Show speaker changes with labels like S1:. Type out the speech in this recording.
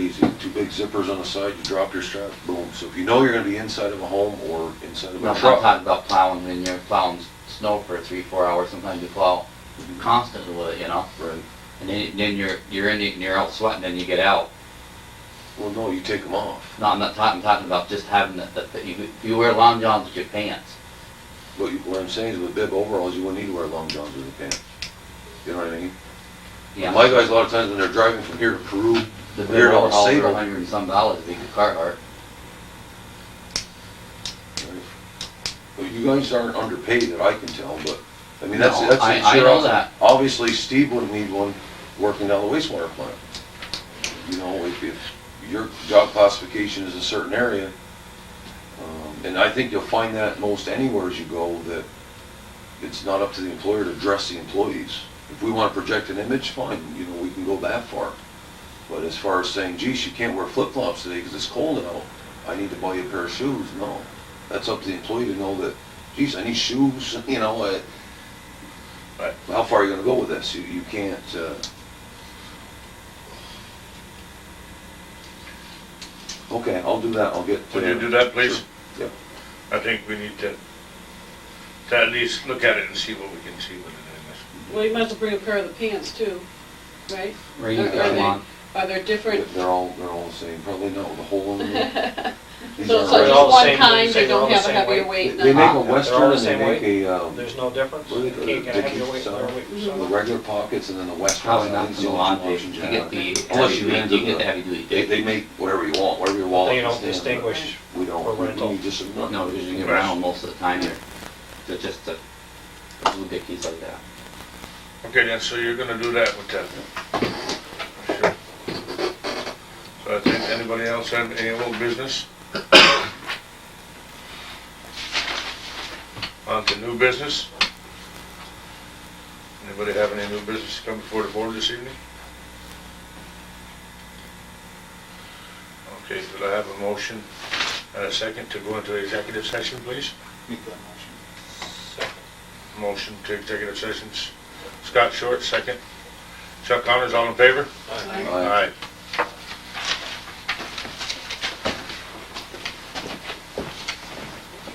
S1: easy, two big zippers on the side, you drop your strap, boom. So if you know you're gonna be inside of a home or inside of
S2: No,
S1: a
S2: I'm talking
S1: truck.
S2: about plowing, when you're plowing snow for three, four hours, sometimes you plow constantly with it, you know?
S1: Right,
S2: And then, then you're, you're in, it and you're out sweating, and you get out.
S1: well, no, you take them off,
S2: No, I'm not talking, I'm talking about just having the, the, the- you, you wear long johns with your pants.
S1: but you- what I'm saying is with bib overalls, you wouldn't need to wear long johns with a pants. You know what I mean?
S2: Yeah.
S1: My guys, a lot of times when they're driving from here to Peru,
S2: The
S1: they're
S2: big
S1: all
S2: overalls are
S1: sable.
S2: a hundred and some dollars, big Carhartt.
S1: Well, you guys aren't underpaid that I can tell, but, I mean, that's,
S2: No,
S1: that's.
S2: I-
S1: it's
S2: I
S1: your
S2: know
S1: op-
S2: that.
S1: Obviously, Steve wouldn't need one working down the wastewater plant. You know, if, if your job classification is a certain area, um, and I think you'll find that most anywhere as you go, that it's not up to the employer to dress the employees. If we wanna project an image, fine, you know, we can go that far. But as far as saying, geez, you can't wear flip-flops today because it's cold out, I need to buy you a pair of shoes, no. That's up to the employee to know that, geez, I need shoes, you know, uh, how far are you gonna go with this? You, you can't, uh, okay, I'll do that, I'll get.
S3: Would
S1: uh,
S3: you do that, please?
S1: Sure. Yep.
S3: I think we need to, to at least look at it and see what we can see with it
S4: Well, you might as well bring a pair of the pants too, right?
S2: Rain,
S4: Are- are
S2: come
S4: they-
S2: on.
S4: Are there different,
S1: They're all, they're all the same, probably not with a hole in them. These
S4: so it's
S1: aren't
S4: like
S5: They're
S1: red.
S5: all the
S4: one
S5: same-
S4: kind, they
S5: they're all
S4: don't
S5: the
S4: have a
S5: same
S4: heavier
S5: weight.
S1: They
S4: weight?
S1: they
S4: none?
S1: make a
S5: all the
S1: western and they
S5: same
S1: make a, um,
S5: There's no difference?
S1: Well, they
S5: You
S1: could-
S5: can't get
S1: they
S5: a heavier
S1: could
S5: weight
S1: sell.
S5: than a weight for
S1: the
S5: someone.
S1: regular pockets and then the western.
S2: Probably
S1: so I
S2: not
S1: think
S2: for the
S1: it's
S2: lawn
S1: two
S2: dish, you
S1: options
S2: get the,
S1: have.
S2: heavy
S1: Unless you
S2: duty- you
S1: into
S2: get the
S1: the,
S2: heavy duty
S1: they,
S2: dish.
S1: they make whatever you want, whatever your wallet.
S5: They don't
S1: is in, but
S5: distinguish,
S1: We
S5: for
S1: don't, we-
S5: rental.
S1: we just.
S2: No, because you get around most of the time, they're, they're just the little dickies like that.
S3: in this. Okay, then, so you're gonna do that with that? Sure. So I think, anybody else have any old business? On to new business? Anybody have any new business to come before the board this evening? Okay, could I have a motion and a second to go into executive session, please?
S6: Make that motion.
S3: Motion to executive sessions. Scott Short, second. Chuck Connors, all in favor?
S1: Aye.
S3: Aye.